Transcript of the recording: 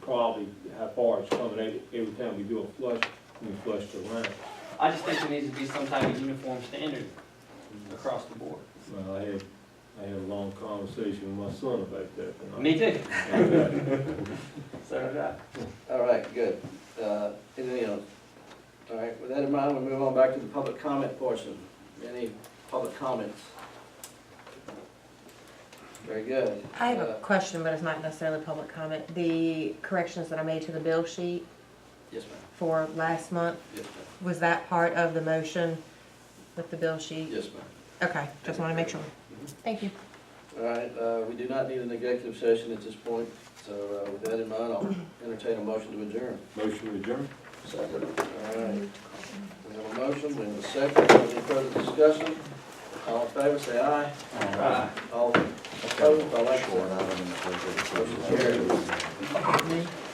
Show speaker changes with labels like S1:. S1: quality, how far it's coming out every time we do a flush, we flush the line.
S2: I just think there needs to be some type of uniform standard across the board.
S1: Well, I had, I had a long conversation with my son about that. and I-
S2: Me too,
S1: and, uh,
S2: so uh, did I.
S3: All right, good. Uh, Anything else? All right, with that in mind, we'll move on back to the public comment portion. Any public comments? Very good.
S4: I have a
S3: Uh,
S4: question, but it's not necessarily public comment. The corrections that I made to the bill sheet
S3: Yes, ma'am.
S4: for last month,
S3: Yes, ma'am.
S4: was that part of the motion with the bill sheet?
S3: Yes, ma'am.
S4: Okay, just want to make sure.
S3: Mhm.
S4: Thank you.
S3: All right, uh, we do not need an executive session at this point, so uh, with that in mind, I'll entertain a motion to adjourn.
S1: Motion adjourned.
S3: Second. All right. We have a motion, we have a second, any further discussion? All in favor, say aye. Aye. All opposed, Oh, I like that.
S5: Short item in the budget.
S3: Motion carried.